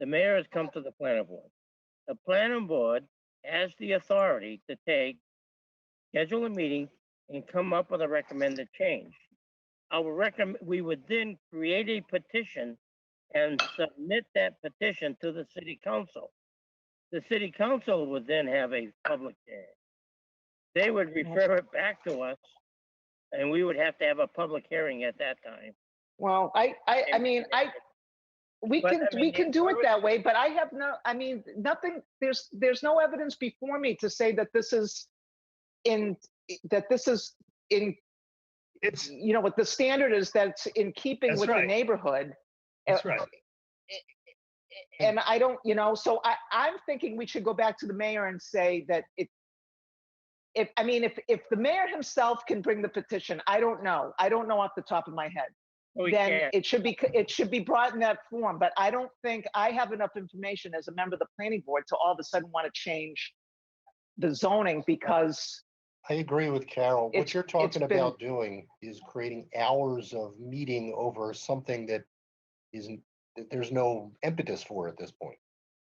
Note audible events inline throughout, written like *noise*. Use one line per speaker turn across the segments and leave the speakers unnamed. the mayor has come to the planning board. The planning board has the authority to take, schedule a meeting and come up with a recommended change. I would recommend, we would then create a petition and submit that petition to the city council. The city council would then have a public hearing. They would refer it back to us and we would have to have a public hearing at that time.
Well, I, I, I
And-
*laughs*
mean, I, we
But,
can,
I
we
mean,
can
it's
do it
already-
that way, but I have no, I mean, nothing, there's, there's no evidence before me to say that this is in, that this is in,
It's,
you know, what the standard is that's in keeping
That's
with the
right.
neighborhood. uh,
that's right.
And I don't, you know, so I, I'm thinking we should go back to the mayor and say that it, if, I mean, if, if the mayor himself can bring the petition, I don't know. I don't know off the top of my head.
We
then
can't.
it should be, c- it should be brought in that form, but I don't think I have enough information as a member of the planning board to all of a sudden want to change the zoning because,
I agree with Carol.
It's-
What you're talking
been-
about doing is creating hours of meeting over something that isn't, that there's no impetus for at this point.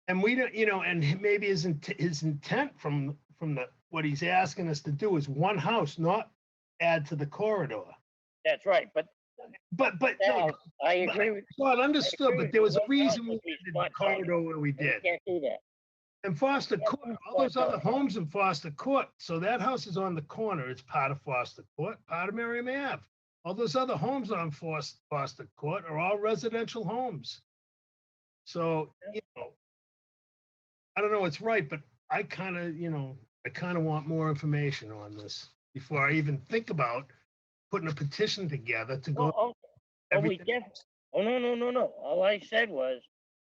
And we don't, you know, and he- maybe his, int- his intent from, from the, what he's asking us to do is one house, not add to the corridor.
That's right, but
But, but, no,
Now, I agree with,
well, understood, but there was a reason we
Well,
did
well,
the corridor where we
we
did.
can't do that.
And Foster
Yeah,
Court, all those
Foster.
other homes in Foster Court, so that house is on the corner, it's part of Foster Court, part of Merriam Ave. All those other homes on Foster, Foster Court are all residential homes. So, you know, I don't know what's right, but I kind of, you know, I kind of want more information on this before I even think about putting a petition together to
Oh,
go.
oh, oh, we
everything-
def, oh, no, no, no, no. All I said was,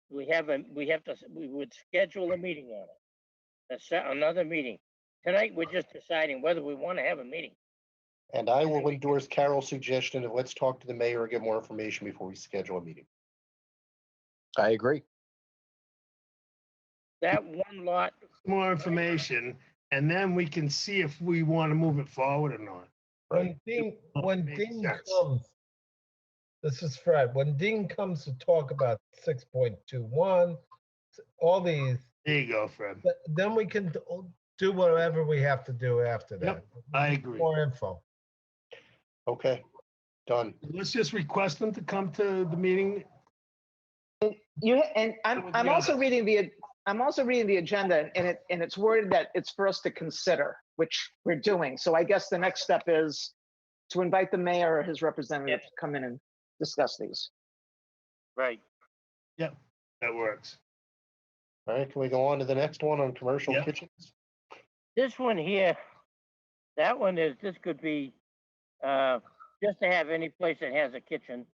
we have a, we have to, s- we would schedule a meeting on it. A se- another meeting. Tonight, we're just deciding whether we want to have a meeting.
And I will endorse Carol's suggestion of let's talk to the mayor and get more information before we schedule a meeting.
I agree.
That one lot,
more information, and then we can see if we want to move it forward or not.
When Ding, when
makes
Ding
sense.
comes, this is Fred, when Ding comes to talk about six point two one, all these,
There you go, Fred.
th- then we can do- do whatever we have to do after that.
Yep, I agree.
More info.
Okay, done.
Let's just request them to come to the meeting.
you, ha- and I'm,
Well,
I'm
yeah.
also reading the, I'm also reading the agenda and it, and it's worded that it's for us to consider, which we're doing. So I guess the next step is to invite the mayor or his representative to come in and discuss these.
right,
That works.
All right, can we go on to the next one on commercial
Yeah.
kitchens?
this one here, that one is, this could be, uh, just to have any place that has a kitchen,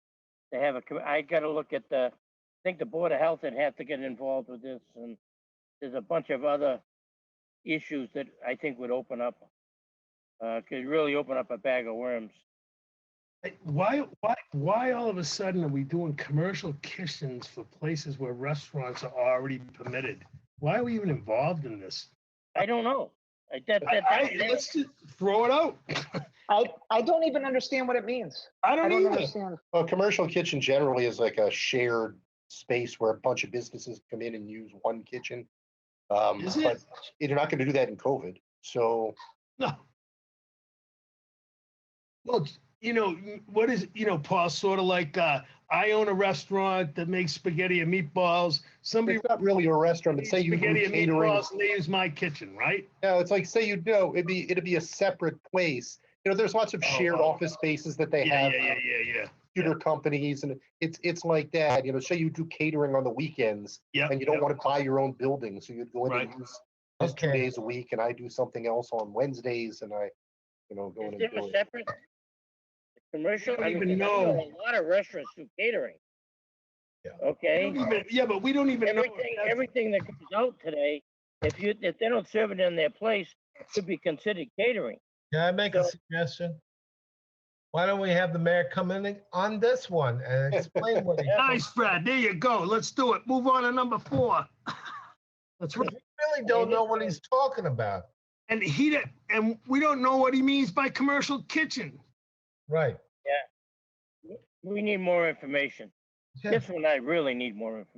to have a, co- I gotta look at the, I think the Board of Health would have to get involved with this, and there's a bunch of other issues that I think would open up, uh, could really open up a bag of worms.
Hey, Why, why, why all of a sudden are we doing commercial kitchens for places where restaurants are already permitted? Why are we even involved in this?
I don't know. I, that,
I,
that,
I-
that,
let's just throw it out.
I, I don't even understand what it means.
I
I
don't
don't
either.
understand.
Well, commercial kitchen generally is like a shared space where a bunch of businesses come in and use one kitchen. Um,
Is
but
it?
you're not gonna do that in COVID, so.
No. Well, you know, m- what is, you know, Paul, sort of like, uh, I own a restaurant that makes spaghetti and meatballs. Somebody
It's not really a restaurant, but
makes
say you do
spaghetti and
catering.
meatballs and they use my kitchen, right?
No, it's like, say you know, it'd be, it'd be a separate place. You know, there's lots of
Oh,
shared
oh.
office spaces that they
Yeah,
have, uh,
yeah, yeah, yeah, yeah.
computer companies, and it's, it's like that, you know, say you do catering on the weekends
Yeah.
and you don't want to buy your own building, so you'd go in and
Right.
use those two
Okay.
days a week, and I do something else on Wednesdays, and I, you know, go in
is
and
there
do
a
it.
separate? Commercial?
don't
I mean,
even
I
know.
A lot of restaurants do catering.
Yeah.
Okay?
Don't even- Yeah, but we don't even know. if
Everything,
that's-
everything that comes out today, if you, if they don't serve it in their place, should be considered catering.
Can I make a
So-
suggestion? Why don't we have the mayor come in and- on this one and explain what he
Nice, Fred. There you go. Let's do it. Move on to number four. *laughs* That's right.
really don't know what he's talking about.
And he, did- and we don't know what he means by commercial kitchen.
Right.
We need more information.
Yeah.
This one, I really need more information.